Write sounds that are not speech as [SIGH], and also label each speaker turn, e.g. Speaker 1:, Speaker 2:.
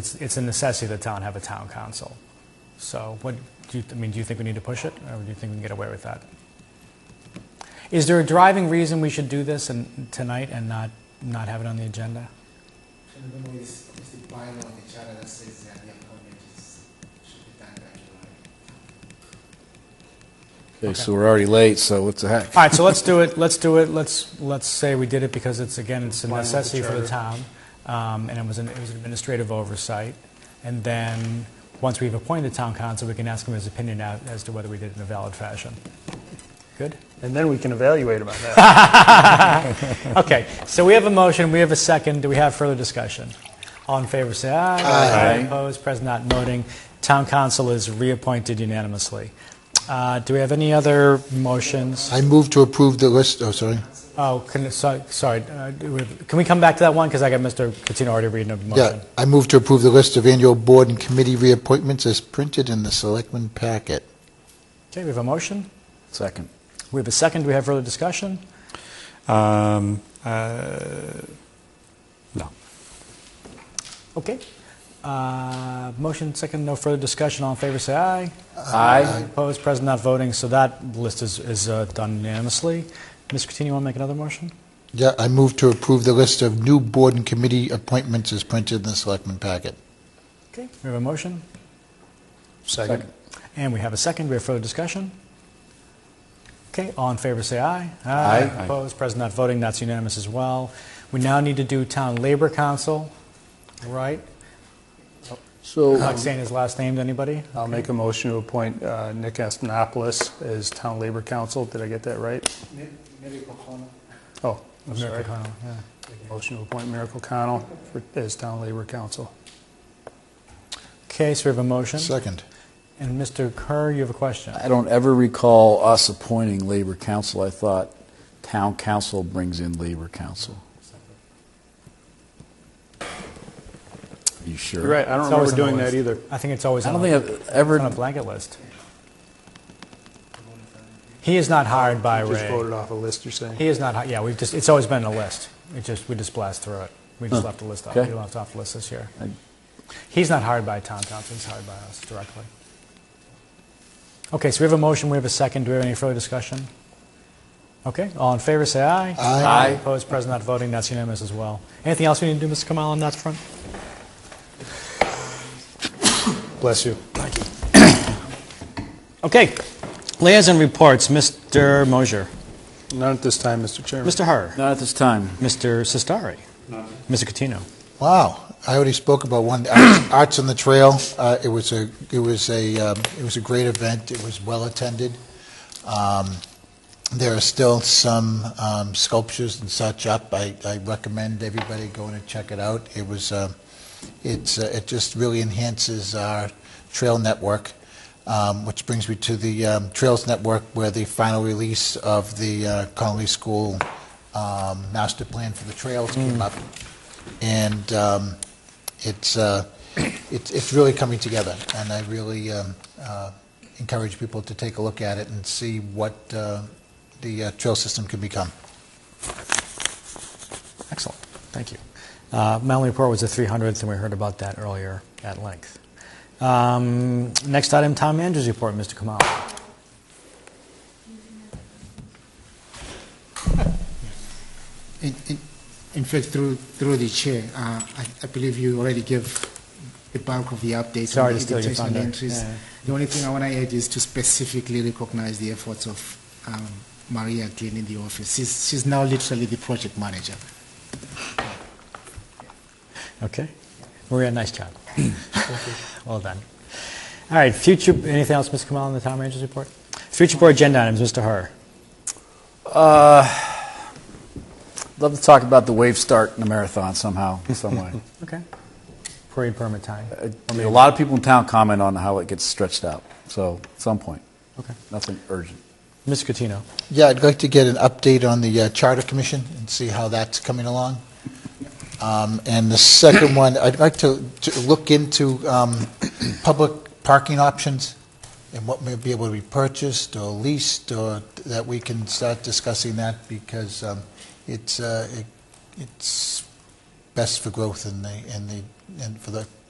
Speaker 1: It's, it's a necessity that town have a town council. So what, do you, I mean, do you think we need to push it, or do you think we can get away with that? Is there a driving reason we should do this and, tonight and not, not have it on the agenda?
Speaker 2: And then we, s- it's the bylaw in the charter that says that the appointment is, should be done by July.
Speaker 3: Okay, so we're already late, so what the heck?
Speaker 1: All right, so let's do it, let's do it, let's, let's say we did it because it's, again, it's a
Speaker 4: Why not the
Speaker 1: necessity for the town, um, and it was an, it was an administrative oversight. And then, once we've appointed the town council, we can ask him his opinion out as to whether we did it in a valid fashion. Good?
Speaker 4: And then we can evaluate about [LAUGHS] that.
Speaker 1: Okay, so we have a motion, we have a second, do we have further discussion? All in favor, say aye.
Speaker 3: Aye.
Speaker 1: Opposed, present not noting, town council is reappointed unanimously. Uh, Do we have any other motions?
Speaker 5: I move to approve the list, oh, sorry.
Speaker 1: Oh, can, so- sorry, uh, do we- can we come back to that one, because I got Mr. Catino already reading a
Speaker 5: Yeah,
Speaker 1: motion.
Speaker 5: I move to approve the list of annual board and committee reappointments as printed in the selectmen packet.
Speaker 1: Okay, we have a motion,
Speaker 3: Second.
Speaker 1: we have a second, do we have further discussion?
Speaker 6: Um, uh, no.
Speaker 1: Okay, Uh, motion, second, no further discussion, all in favor, say aye.
Speaker 3: Aye.
Speaker 1: Opposed, present not voting, so that list is, is uh, done unanimously. Mr. Catino, want to make another motion?
Speaker 5: Yeah, I move to approve the list of new board and committee appointments as printed in the selectmen packet.
Speaker 1: Okay, we have a motion,
Speaker 4: Second.
Speaker 1: and we have a second. We have further discussion. Okay, all in favor, say aye.
Speaker 3: Aye.
Speaker 1: Opposed, present not voting, that's unanimous as well. We now need to do Town Labor Council, right?
Speaker 3: So,
Speaker 4: um,
Speaker 1: Not saying his last name to anybody?
Speaker 4: I'll make a motion to appoint uh, Nick Astonopoulos as Town Labor Council. Did I get that right?
Speaker 2: Mi- Miracle Corner.
Speaker 4: Oh, I'm sorry.
Speaker 1: Mr. Connell, yeah.
Speaker 4: Motion to appoint Miracle Connell for- as Town Labor Council.
Speaker 1: Okay, so we have a motion.
Speaker 5: Second.
Speaker 1: And Mr. Kerr, you have a question?
Speaker 3: I don't ever recall us appointing labor council. I thought town council brings in labor council. Are you sure?
Speaker 4: You're right, I
Speaker 1: It's
Speaker 4: don't
Speaker 1: always
Speaker 4: remember
Speaker 1: on the
Speaker 4: doing that
Speaker 1: list.
Speaker 4: either.
Speaker 1: I think it's always
Speaker 3: I
Speaker 1: on
Speaker 3: don't
Speaker 1: the-
Speaker 3: think I've
Speaker 1: it's on a
Speaker 3: ever,
Speaker 1: blanket list. He is not hired by
Speaker 4: Just
Speaker 1: Ray.
Speaker 4: voted off a list, you're saying?
Speaker 1: He is not, hi- yeah, we've just, it's always been a list. It just, we just blast through it. We just left the list off, we
Speaker 3: okay.
Speaker 1: left off the list this year. He's not hired by Tom Thompson, he's hired by us directly. Okay, so we have a motion, we have a second, do we have any further discussion? Okay, all in favor, say aye.
Speaker 5: Aye.
Speaker 3: Aye.
Speaker 1: Opposed, present not voting, that's unanimous as well. Anything else we need to do, Mr. Kamal, on that front?
Speaker 4: Bless you.
Speaker 1: Okay, liaison reports, Mr. Mosier,
Speaker 4: Not at this time, Mr. Chairman.
Speaker 1: Mr. Herr,
Speaker 3: not at this time.
Speaker 1: Mr. Sistari, Mr. Catino.
Speaker 5: Wow, I already spoke about one, Arts [COUGHS] Arts on the Trail. Uh, It was a, it was a, um, it was a great event, it was well-attended. Um, There are still some um, sculptures and such up. I I recommend everybody going and check it out. It was, uh, it's, uh, it just really enhances our trail network, um, which brings me to the um, Trails Network, where the final release of the uh, Connolly School um, Master Plan for the Trails came up and um, it's, uh, it's it's really coming together. And I really um, uh, encourage people to take a look at it and see what uh, the uh, trail system can become.
Speaker 1: Excellent, thank you. Uh, My only report was the 300th, and we heard about that earlier at length. Um, Next item, Tom Andrews' report, Mr. Kamal.
Speaker 2: In, in, in fact, through, through the chair, uh, I, I believe you already gave the bulk of the updates
Speaker 1: Sorry
Speaker 2: on
Speaker 1: to
Speaker 2: the
Speaker 1: steal your
Speaker 2: educational
Speaker 1: thunder.
Speaker 2: entries.
Speaker 1: Yeah.
Speaker 2: The only thing I want to add is to specifically recognize the efforts of um, Maria Glynn in the office. She's, she's now literally the project manager.
Speaker 1: Okay? Maria, nice job. [LAUGHS] Well done. All right, future, anything else, Mr. Kamal, on the Tom Andrews' report? Future board agenda items, Mr. Herr.
Speaker 3: Love to talk about the wave start in the marathon somehow, some
Speaker 4: [LAUGHS]
Speaker 3: way.
Speaker 1: Okay. Parade permit time.
Speaker 3: I mean, a lot of people in town comment on how it gets stretched out, so at some point.
Speaker 1: Okay.
Speaker 3: Nothing urgent.
Speaker 1: Mr. Catino.
Speaker 5: Yeah, I'd like to get an update on the uh, Charter Commission and see how that's coming along. Um, And the second one, I'd like to to look into um, public parking options and what may be able to be purchased or leased, or that we can start discussing that because um, it's, uh, it- it's best for growth in the, in the, and for the